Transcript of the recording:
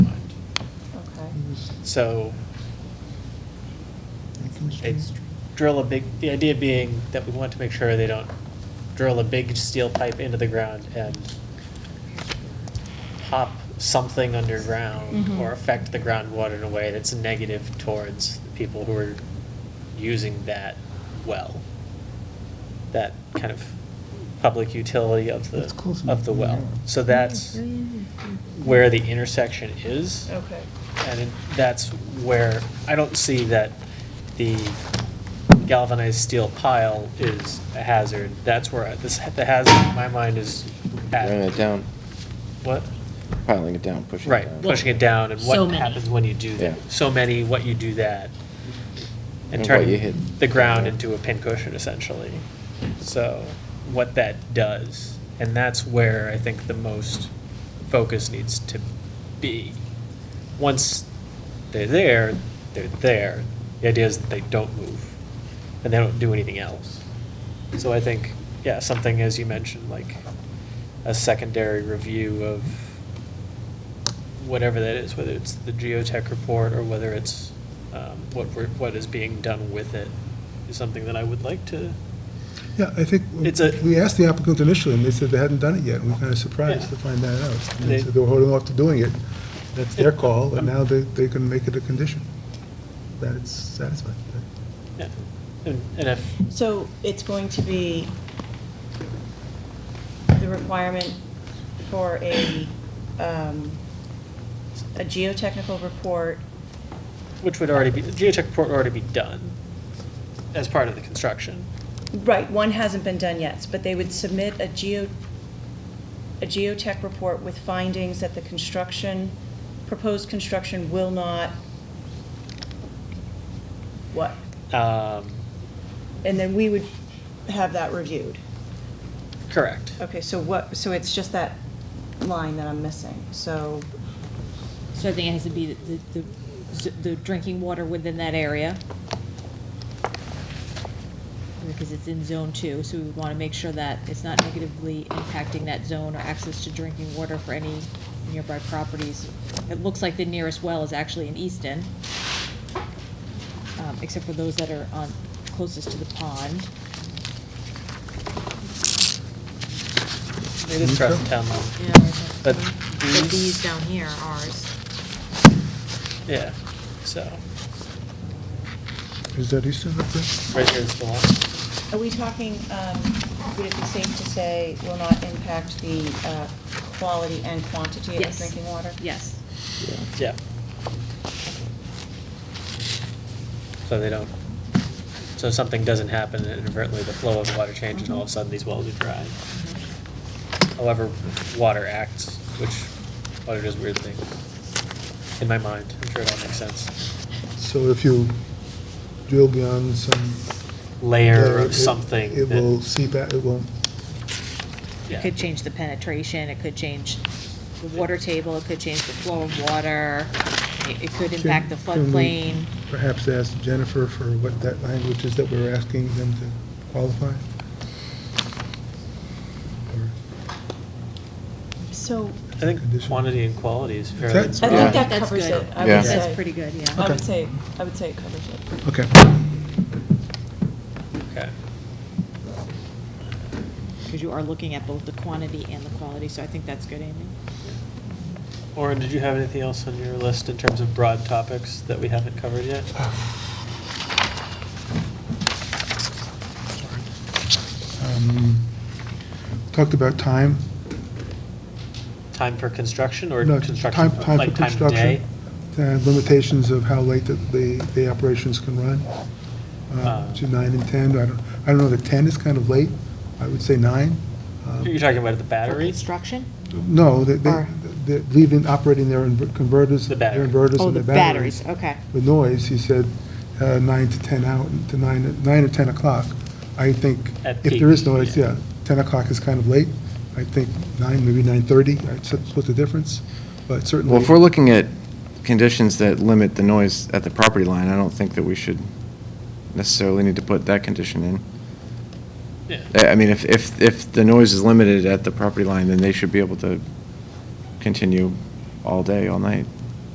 So it's drill a big, the idea being that we want to make sure they don't drill a big steel pipe into the ground and pop something underground Mm-hmm. Mhm. or affect the groundwater in a way that's negative towards the people who are using that well. That kind of public utility of the, That's close of the enough, well. yeah. Oh, So that's where the intersection is. Okay. And it- that's where, I don't see that the galvanized steel pile is a hazard. That's where, I- this, the hazard in my mind is Running it at, down, what, piling it down, pushing it right, down. pushing it down and So what many. happens when you do that. Yeah. So many, what you do that. And And what you turning hit. the ground Yeah. into a pincushion essentially. So what that does, and that's where I think the most focus needs to be. Once they're there, they're there. The idea is that they don't move and they don't do anything else. So I think, yeah, something as you mentioned, like a secondary review of whatever that is, whether it's the geotech report or whether it's um, what we're, what is being done with it, is something that I would like to. Yeah, I think, It's a- we asked the applicant initially, and they said they hadn't done it yet, and we were kind of surprised Yeah. to find that out. And They- They said they were holding off to doing it, that's their call, and now they, they can make it a condition, that it's satisfied. yeah. And and if, So it's going to be the requirement for a, um, a geotechnical report, which would already be, the geotech report would already be done as part of the construction. right, one hasn't been done yet, but they would submit a geo, a geotech report with findings that the construction, proposed construction will not, what? Um, And then we would have that reviewed. Correct. Okay, so what, so it's just that line that I'm missing, so, So I think it has to be the, the, the- the drinking water within that area. Because it's in zone two, so we want to make sure that it's not negatively impacting that zone or access to drinking water for any nearby properties. It looks like the nearest well is actually in Easton, um, except for those that are on, closest to the pond. It is part of the town line. Yeah. But But these- these down here are ours. Yeah, so, Is that Easton up there? right here's the one. are we talking, um, would it be safe to say will not impact the uh, quality and quantity of Yes. drinking water? Yes. Yeah. So they don't, so something doesn't happen and inadvertently, the flow of the water changes and all of a sudden these wells are dry. However, water acts, which water does weird things. In my mind, I'm sure it all makes sense. So if you drill beyond some. Layer it- of it- something. It that- will seep out, it will, yeah. It could change the penetration, it could change the water table, it could change the flow of water, it it could impact the Can- can we- floodplain. perhaps ask Jennifer for what that language is that we're asking them to qualify? Or- So, I think quantity and quality is fairly. That's- I Yeah. think that That's covers good. it, I Yeah. would say. That's pretty good, yeah. I would Okay. say, I would say it covers it. Okay, Okay. Because you are looking at both the quantity and the quality, so I think that's good, Amy. Orin, did you have anything else on your list in terms of broad topics that we haven't covered yet? um, talked about time. Time for construction or No, construction, time- time for like time of construction. day? uh, limitations of how late the, the- the operations can run, uh, Uh. to nine and 10. I don't, I don't know, the 10 is kind of late. I would say nine. Um, You're talking about the For batteries? construction? No, they, they- Or- they're leaving, operating their inver- converters, The their battery. inverters Oh, and the their batteries. batteries, okay. The noise, he said, uh, nine to 10 out, to nine, nine or 10 o'clock. I think, At if there is peak, noise, yeah. yeah, 10 o'clock is kind of late. I think nine, maybe 9:30, I'd s- split the difference, but certainly. Well, if we're looking at conditions that limit the noise at the property line, I don't think that we should necessarily need to put that condition in. Yeah. I I mean, if, if, if the noise is limited at the property line, then they should be able to continue all day, all night.